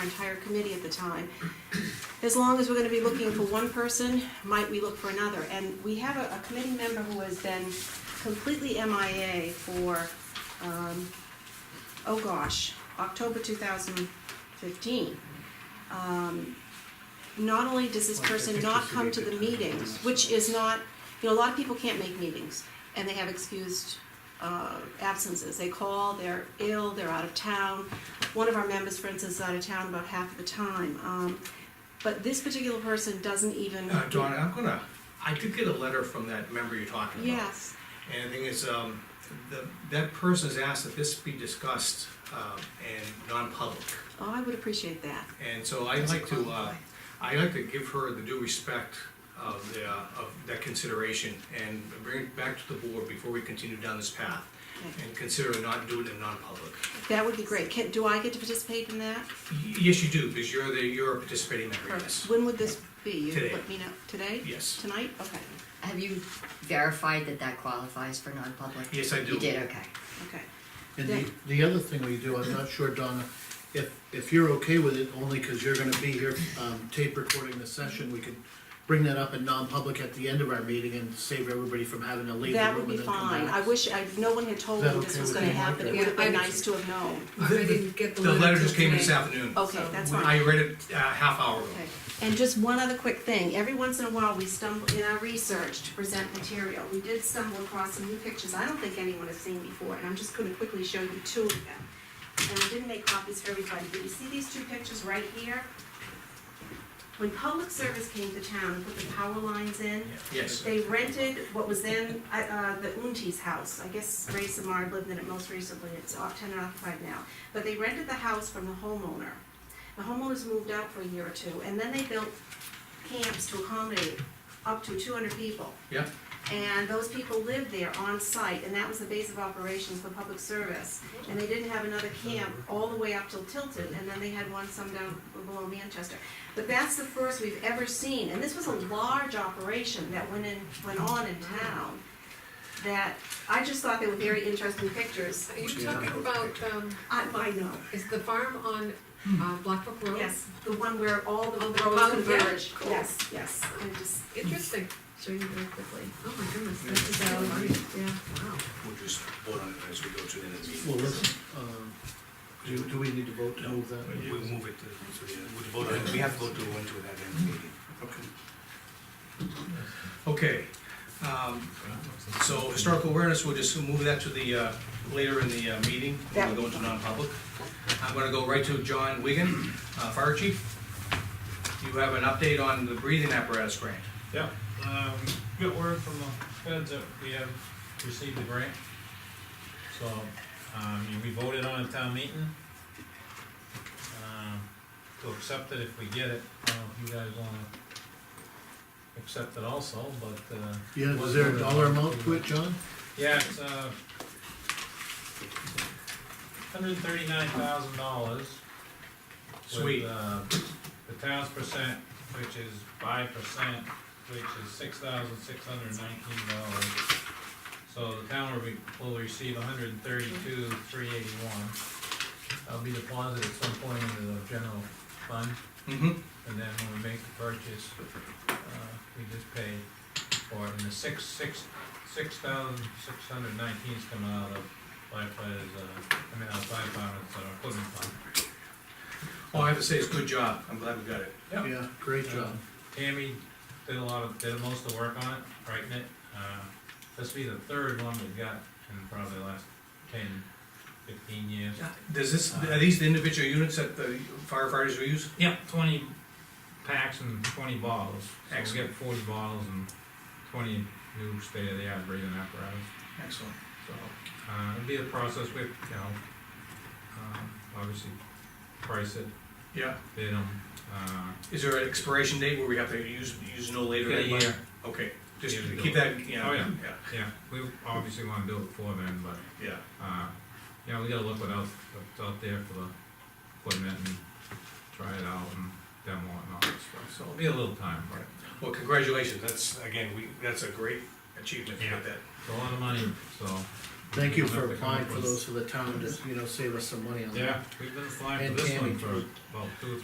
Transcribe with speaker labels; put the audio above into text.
Speaker 1: our entire committee at the time. As long as we're gonna be looking for one person, might we look for another? And we have a, a committee member who has been completely MIA for, um, oh gosh, October two thousand fifteen. Um, not only does this person not come to the meetings, which is not, you know, a lot of people can't make meetings, and they have excused uh, absences. They call, they're ill, they're out of town. One of our members, for instance, is out of town about half of the time. Um, But this particular person doesn't even.
Speaker 2: Uh, Donna, I'm gonna, I did get a letter from that member you're talking about.
Speaker 1: Yes,
Speaker 2: And the thing is, um, the, that person's asked that this be discussed, um, and non-public.
Speaker 1: oh, I would appreciate that.
Speaker 2: And so I'd like to, uh, I'd like to give her the due respect of the, uh, of that consideration and bring it back to the board before we continue down this path.
Speaker 1: Okay.
Speaker 2: And consider not doing it in non-public.
Speaker 1: That would be great. Can, do I get to participate in that?
Speaker 2: Y- Yes, you do, because you're the, you're a participating member,
Speaker 1: Perfect.
Speaker 2: yes.
Speaker 1: When would this be? You
Speaker 2: Today.
Speaker 1: Let me know, today?
Speaker 2: Yes,
Speaker 1: Tonight? Okay,
Speaker 3: Have you verified that that qualifies for non-public?
Speaker 2: yes, I do.
Speaker 3: You did, okay.
Speaker 1: okay.
Speaker 4: And the, the other thing we do, I'm not sure, Donna, if, if you're okay with it, only because you're gonna be here, um, tape recording the session, we could bring that up in non-public at the end of our meeting and save everybody from having to leave the
Speaker 1: That would be
Speaker 4: room and then come back.
Speaker 1: fine. I wish, I, no one had told
Speaker 4: Is
Speaker 1: me
Speaker 4: that
Speaker 1: this
Speaker 4: okay
Speaker 1: was
Speaker 4: with
Speaker 1: gonna
Speaker 4: you, Mike?
Speaker 1: happen. It
Speaker 5: Yeah,
Speaker 1: would have been
Speaker 5: I-
Speaker 1: nice to have known.
Speaker 5: I didn't get the
Speaker 2: The
Speaker 5: letter.
Speaker 2: letter just
Speaker 5: till
Speaker 2: came in this
Speaker 5: today.
Speaker 2: afternoon.
Speaker 1: Okay,
Speaker 5: So,
Speaker 1: that's fine.
Speaker 2: I read it uh, half hour ago.
Speaker 1: Okay, and just one other quick thing, every once in a while, we stumble, in our research to present material, we did stumble across some new pictures I don't think anyone has seen before, and I'm just gonna quickly show you two of them. And I didn't make copies for everybody, but you see these two pictures right here? When public service came to town and put the power lines in,
Speaker 2: Yes.
Speaker 1: they rented what was then, uh, uh, the Unti's house, I guess Ray Samard lived in it most recently, it's off tenant occupied now. But they rented the house from the homeowner. The homeowners moved out for a year or two, and then they built camps to accommodate up to two hundred people.
Speaker 2: Yeah.
Speaker 1: And those people lived there on site, and that was the base of operations for public service. And they didn't have another camp all the way up till Tilton, and then they had one some down below Manchester. But that's the first we've ever seen, and this was a large operation that went in, went on in town. That, I just thought they were very interesting pictures.
Speaker 5: Are you talking about, um,
Speaker 1: I, I know,
Speaker 5: is the farm on,
Speaker 2: Hmm.
Speaker 5: uh, Black Brook Road?
Speaker 1: yes, the one where all the
Speaker 5: Oh, the
Speaker 1: roads
Speaker 5: mountain, yeah,
Speaker 1: converge.
Speaker 5: cool.
Speaker 1: Yes, yes, I just,
Speaker 5: Interesting, show you very quickly. Oh my goodness, this is out of yeah, wow.
Speaker 6: We'll just vote on it as we go to the end of the meeting.
Speaker 4: Well, let's, um, do, do we need to vote to move that?
Speaker 6: We'll move it to, so we- we'll vote on it. we have to vote to go into that end of the meeting.
Speaker 2: Okay,
Speaker 4: Okay.
Speaker 2: um, so historical awareness, we'll just move that to the, uh, later in the, uh, meeting, when we go into non-public. I'm gonna go right to John Wigan, uh, Fire Chief. You have an update on the breathing apparatus grant.
Speaker 7: Yeah, um, got word from the feds that we have received the grant. So, um, and we voted on a town meeting. Um, to accept it if we get it, I don't know if you guys wanna accept it also, but, uh.
Speaker 4: Yeah, is there a dollar amount to it, John?
Speaker 7: Yeah, it's, uh, hundred and thirty-nine thousand dollars.
Speaker 2: Sweet.
Speaker 7: With, uh, the town's percent, which is five percent, which is six thousand six hundred and nineteen dollars. So the town will be, will receive a hundred and thirty-two, three eighty-one. That'll be deposited at some point into the general fund,
Speaker 2: Mm-hmm.
Speaker 7: and then when we make the purchase, uh, we just pay for it, and the six, six, six thousand six hundred nineteen is coming out of firefighters, uh, I mean, out of firefighters, uh, equipment fund.
Speaker 2: All I have to say is good job, I'm glad we got it.
Speaker 7: Yeah.
Speaker 4: Yeah, great job.
Speaker 7: Tammy did a lot of, did most of the work on it, writing it, uh, this will be the third one we've got in probably the last ten, fifteen years.
Speaker 2: Does this, are these the individual units that the firefighters will use?
Speaker 7: Yep, twenty packs and twenty bottles. So we'll
Speaker 2: Excellent.
Speaker 7: get forty bottles and twenty new state-of-the-art breathing apparatus.
Speaker 2: Excellent.
Speaker 7: So, uh, it'll be a process with, you know, um, obviously price it,
Speaker 2: Yeah,
Speaker 7: bid them, uh,
Speaker 2: is there an expiration date where we have to use, use no later
Speaker 7: get a
Speaker 2: than?
Speaker 7: year,
Speaker 2: Okay, just
Speaker 7: Year to
Speaker 2: keep
Speaker 7: go.
Speaker 2: that, yeah,
Speaker 7: Oh, yeah.
Speaker 2: yeah,
Speaker 7: yeah, we obviously wanna do it before then, but,
Speaker 2: yeah.
Speaker 7: uh, you know, we gotta look what else, what's out there for the equipment and try it out and demo it and all that stuff, so it'll be a little time, but
Speaker 2: Well, congratulations, that's, again, we, that's a great achievement to
Speaker 7: Yeah.
Speaker 2: get that.
Speaker 7: it's a lot of money, so
Speaker 4: Thank you
Speaker 7: Have
Speaker 4: for
Speaker 7: to come
Speaker 4: applying
Speaker 7: up
Speaker 4: for
Speaker 7: with-
Speaker 4: those for the town to, you know, save us some money on that.
Speaker 7: Yeah, we've been applying
Speaker 4: And
Speaker 7: for this one
Speaker 4: Tammy.
Speaker 7: for about two or